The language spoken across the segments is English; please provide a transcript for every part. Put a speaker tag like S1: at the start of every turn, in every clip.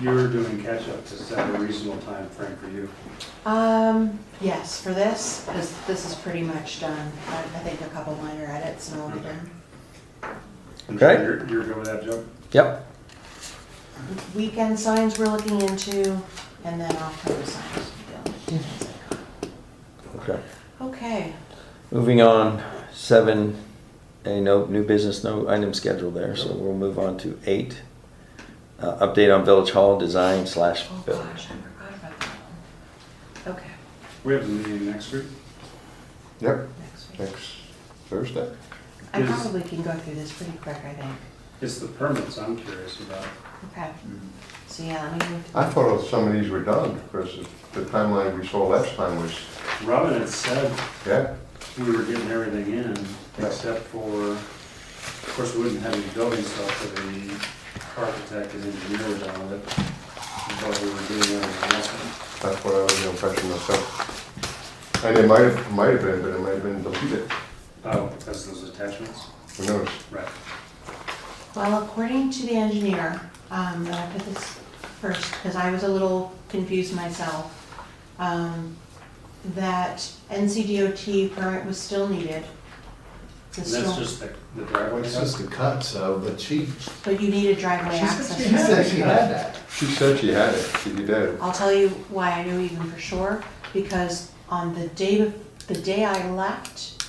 S1: You're doing catch-ups, is that a reasonable time frame for you?
S2: Um, yes, for this, because this is pretty much done. I I think a couple minor edits and all be done.
S1: And so
S3: Okay.
S1: You're, you're good with that, Joe?
S3: Yep.
S2: Weekend signs we're looking into, and then October signs. we'll-
S3: Okay.
S2: Okay,
S3: Moving on, seven, a no, new business, no item scheduled there, so we'll move on to eight. Uh, update on Village Hall design slash
S2: oh
S3: build.
S2: gosh, I forgot about that one. Okay,
S1: We have a meeting next week.
S4: Yep,
S2: next week.
S4: next Thursday.
S2: I
S1: Is-
S2: probably can go through this pretty quick, I think.
S1: It's the permits I'm curious about.
S2: Okay, so yeah, let me.
S4: I thought some of these were done because the timeline we saw last time was,
S1: Robin had said
S4: yeah,
S1: we were getting everything in, except for, of course, we wouldn't have any building stuff for the architect and engineer were done with it. But we were getting everything else.
S4: that's what I was the impression myself. And it might have, might have been, but it might have been deleted.
S1: Oh, because those attachments?
S4: Who knows?
S1: Right.
S2: Well, according to the engineer, um, and I put this first, because I was a little confused myself, um, that NCDOT permit was still needed.
S1: And
S2: Was
S1: that's
S2: still-
S1: just the the driveway
S5: It's
S1: stuff?
S5: just the cut, so, but she,
S2: But you needed driveway
S5: she said
S2: access.
S5: she had that.
S4: She said she had it, she did.
S2: I'll tell you why I knew even for sure, because on the day, bef- the day I left,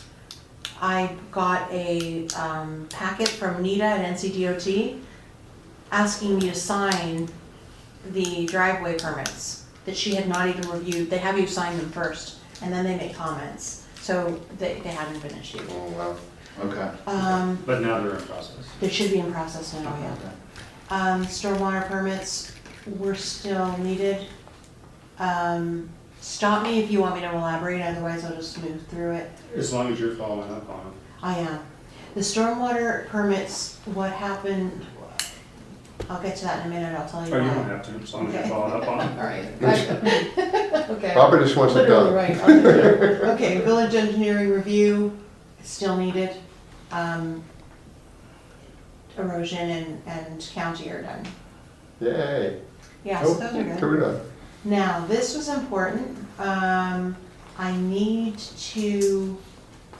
S2: I got a, um, packet from Nita at NCDOT asking me to sign the driveway permits that she had not even reviewed. They have you sign them first, and then they make comments, so they, they haven't been issued.
S4: Oh, wow.
S5: Okay.
S2: Um,
S1: But now they're in process.
S2: they should be in process now, yeah. Um, stormwater permits were still needed. Um, stop me if you want me to elaborate, otherwise I'll just move through it.
S1: As long as you're following up on them.
S2: I am. The stormwater permits, what happened, I'll get to that in a minute, I'll tell you
S1: Oh,
S2: why.
S1: you don't have to, as long as you're
S2: Okay.
S1: following up on them.
S2: All right. Okay.
S4: Robert just wants it
S2: Literally
S4: done.
S2: right. on there. Okay, village engineering review, still needed. Um, Erosion and, and county are done.
S4: Yay. Oh,
S2: Yeah, so
S4: Nope,
S2: those are good.
S4: Two done.
S2: Now, this was important. Um, I need to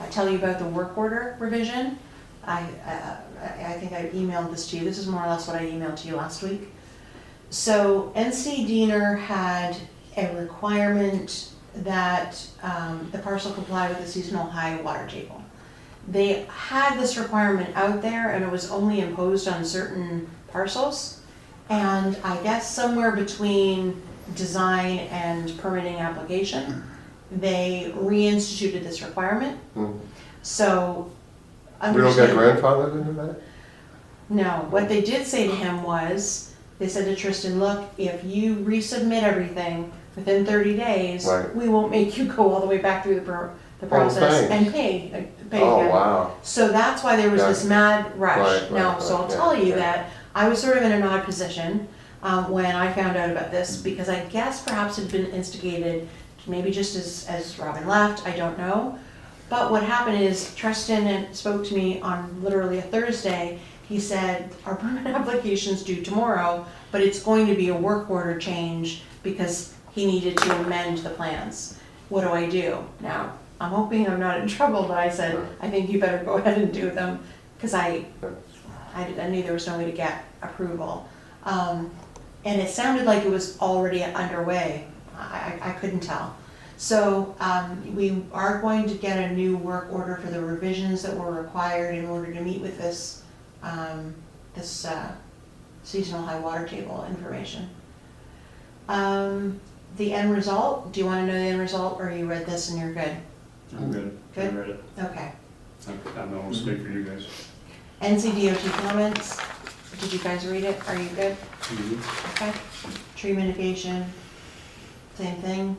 S2: uh, tell you about the work order revision. I, uh, I I think I emailed this to you. This is more or less what I emailed to you last week. So NC Diener had a requirement that um, the parcel comply with the seasonal high water table. They had this requirement out there and it was only imposed on certain parcels. And I guess somewhere between design and permitting application, they reinstituted this requirement.
S4: Hmm.
S2: So.
S4: We don't get
S2: understand-
S4: grandfathered into that?
S2: no, what they did say to him was, they said to Tristan, look, if you resubmit everything within thirty days,
S4: Right. Oh,
S2: we won't make you go all the way back through the pro- the process
S4: thanks.
S2: and pay, uh, pay
S4: Oh,
S2: again."
S4: wow.
S2: So that's why there was this mad
S4: Right,
S2: rush.
S4: right,
S2: Now, so
S4: right,
S2: I'll
S4: yeah,
S2: tell you
S4: yeah.
S2: that I was sort of in an odd position um, when I found out about this because I guess perhaps it had been instigated, maybe just as, as Robin left, I don't know. But what happened is Tristan and- spoke to me on literally a Thursday. He said, our permit application's due tomorrow, but it's going to be a work order change because he needed to amend the plans. What do I do now? I'm hoping I'm not in trouble, but I said, I think you better go ahead and do them, because I, I I knew there was no way to get approval. Um, and it sounded like it was already underway. I, I I couldn't tell. So, um, we are going to get a new work order for the revisions that were required in order to meet with this, um, this, uh, seasonal high water table information. Um, the end result, do you wanna know the end result, or you read this and you're good?
S1: I'm good. I
S2: Good.
S1: read it.
S2: Okay.
S1: I'm, I'm the one speak for you guys.
S2: NCDOT comments, did you guys read it? Are you good?
S1: Mm-hmm.
S2: Okay. Tree mitigation, same thing.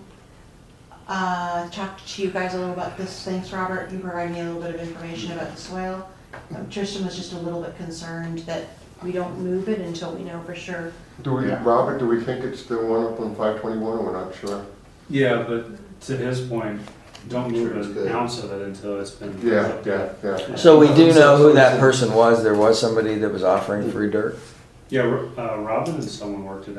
S2: Uh, talked to you guys a little about this, thanks, Robert, you provided me a little bit of information about the soil. Um, Tristan was just a little bit concerned that we don't move it until we know for sure.
S4: Do we,
S5: Yeah.
S4: Robert, do we think it's the one up on five twenty-one? We're not sure.
S1: Yeah, but to his point, don't move
S5: Sure, it's
S1: an
S5: good.
S1: ounce of it until it's been.
S5: Mm-hmm.
S4: Yeah, yeah, yeah.
S3: So we do know who that person was. There was somebody that was offering free dirt.
S1: Yeah, Ro- uh, Robin and someone worked it out.